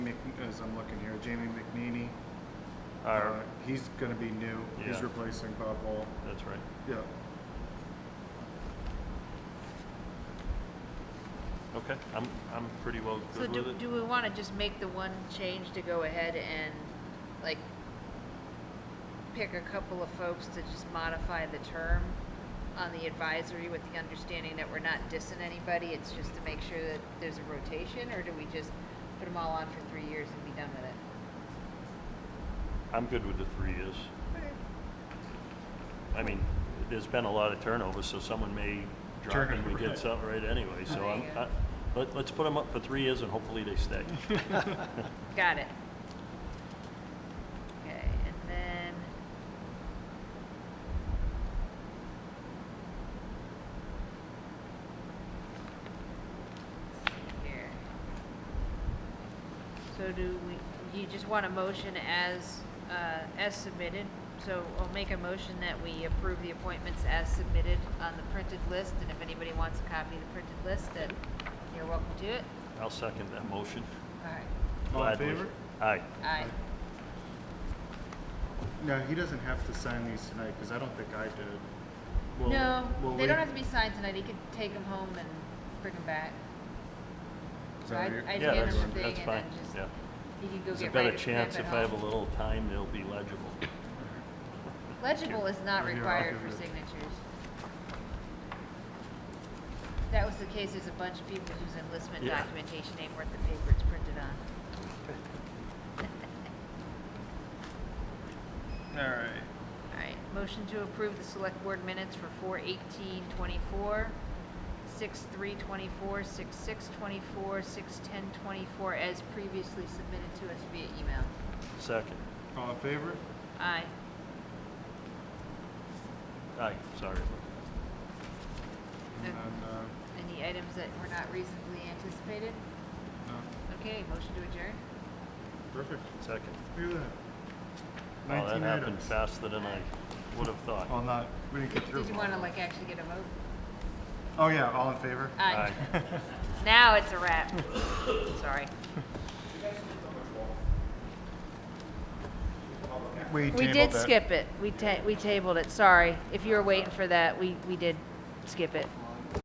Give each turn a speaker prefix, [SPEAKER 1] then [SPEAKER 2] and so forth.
[SPEAKER 1] I'm looking here, Jamie McNeely.
[SPEAKER 2] All
[SPEAKER 1] Uh,
[SPEAKER 2] right,
[SPEAKER 1] He's gonna be new, he's
[SPEAKER 2] Yeah.
[SPEAKER 1] replacing Bob Wall,
[SPEAKER 2] that's right.
[SPEAKER 1] yeah.
[SPEAKER 2] Okay, I'm, I'm pretty well
[SPEAKER 3] So
[SPEAKER 2] good with
[SPEAKER 3] do,
[SPEAKER 2] it.
[SPEAKER 3] do we want to just make the one change to go ahead and, like, pick a couple of folks to just modify the term on the advisory with the understanding that we're not dissing anybody, it's just to make sure that there's a rotation, or do we just put them all on for three years and be done with it?
[SPEAKER 2] I'm good with the three years. I mean, there's been a lot of turnover, so someone may drop
[SPEAKER 1] Turn
[SPEAKER 2] and we
[SPEAKER 1] over,
[SPEAKER 2] get
[SPEAKER 1] right.
[SPEAKER 2] something right anyway, so
[SPEAKER 3] There
[SPEAKER 2] I'm,
[SPEAKER 3] you
[SPEAKER 2] I,
[SPEAKER 3] go.
[SPEAKER 2] let, let's put them up for three years and hopefully they stay.
[SPEAKER 3] Got it. Okay, and then. Let's see Here. So do we, you just want a motion as, uh, as submitted? So I'll make a motion that we approve the appointments as submitted on the printed list, and if anybody wants a copy of the printed list, then you're welcome to it.
[SPEAKER 2] I'll second that motion.
[SPEAKER 3] All right.
[SPEAKER 1] All in
[SPEAKER 2] Gladly.
[SPEAKER 1] favor?
[SPEAKER 2] Aye.
[SPEAKER 3] Aye.
[SPEAKER 1] No, he doesn't have to sign these tonight, because I don't think I did. We'll-
[SPEAKER 3] No,
[SPEAKER 1] we'll
[SPEAKER 3] they don't
[SPEAKER 1] wait-
[SPEAKER 3] have to be signed tonight. He could take them home and bring them back.
[SPEAKER 1] Is
[SPEAKER 3] So
[SPEAKER 1] that
[SPEAKER 3] I,
[SPEAKER 1] what you're-
[SPEAKER 3] I
[SPEAKER 2] Yeah,
[SPEAKER 3] hand
[SPEAKER 2] that's,
[SPEAKER 3] him the
[SPEAKER 2] that's
[SPEAKER 3] thing
[SPEAKER 2] fine,
[SPEAKER 3] and then just,
[SPEAKER 2] yeah.
[SPEAKER 3] he could go
[SPEAKER 2] There's a
[SPEAKER 3] get ready
[SPEAKER 2] better
[SPEAKER 3] to
[SPEAKER 2] chance if I have a little time, they'll be legible.
[SPEAKER 3] Legible is not
[SPEAKER 1] Right here, I'll
[SPEAKER 3] required
[SPEAKER 1] give
[SPEAKER 3] for
[SPEAKER 1] you the-
[SPEAKER 3] signatures. That was the case, there's a bunch of people whose enlistment
[SPEAKER 2] Yeah.
[SPEAKER 3] documentation ain't worth the paper it's printed on.
[SPEAKER 1] All right.
[SPEAKER 3] All right, motion to approve the select board minutes for four eighteen twenty-four, six three twenty-four, six six twenty-four, six ten twenty-four, as previously submitted to us via email.
[SPEAKER 2] Second.
[SPEAKER 1] All in favor?
[SPEAKER 3] Aye.
[SPEAKER 2] Aye, sorry.
[SPEAKER 1] And then, uh,
[SPEAKER 3] Any items that were not reasonably anticipated?
[SPEAKER 1] no,
[SPEAKER 3] Okay, motion to adjourn?
[SPEAKER 1] perfect.
[SPEAKER 2] Second.
[SPEAKER 1] Look at that.
[SPEAKER 2] Well, Oh, that
[SPEAKER 1] Nineteen
[SPEAKER 2] happened
[SPEAKER 1] items.
[SPEAKER 2] faster than I would have thought.
[SPEAKER 1] Well, not, we didn't get through.
[SPEAKER 3] Did you
[SPEAKER 1] them
[SPEAKER 3] want to
[SPEAKER 1] all.
[SPEAKER 3] like actually get a vote?
[SPEAKER 1] Oh, yeah, all in favor?
[SPEAKER 3] Aye. Now it's a wrap. Sorry. We
[SPEAKER 1] tabled
[SPEAKER 3] did
[SPEAKER 1] that.
[SPEAKER 3] skip it. We ta, we tabled it, sorry. If you were waiting for that, we, we did skip it.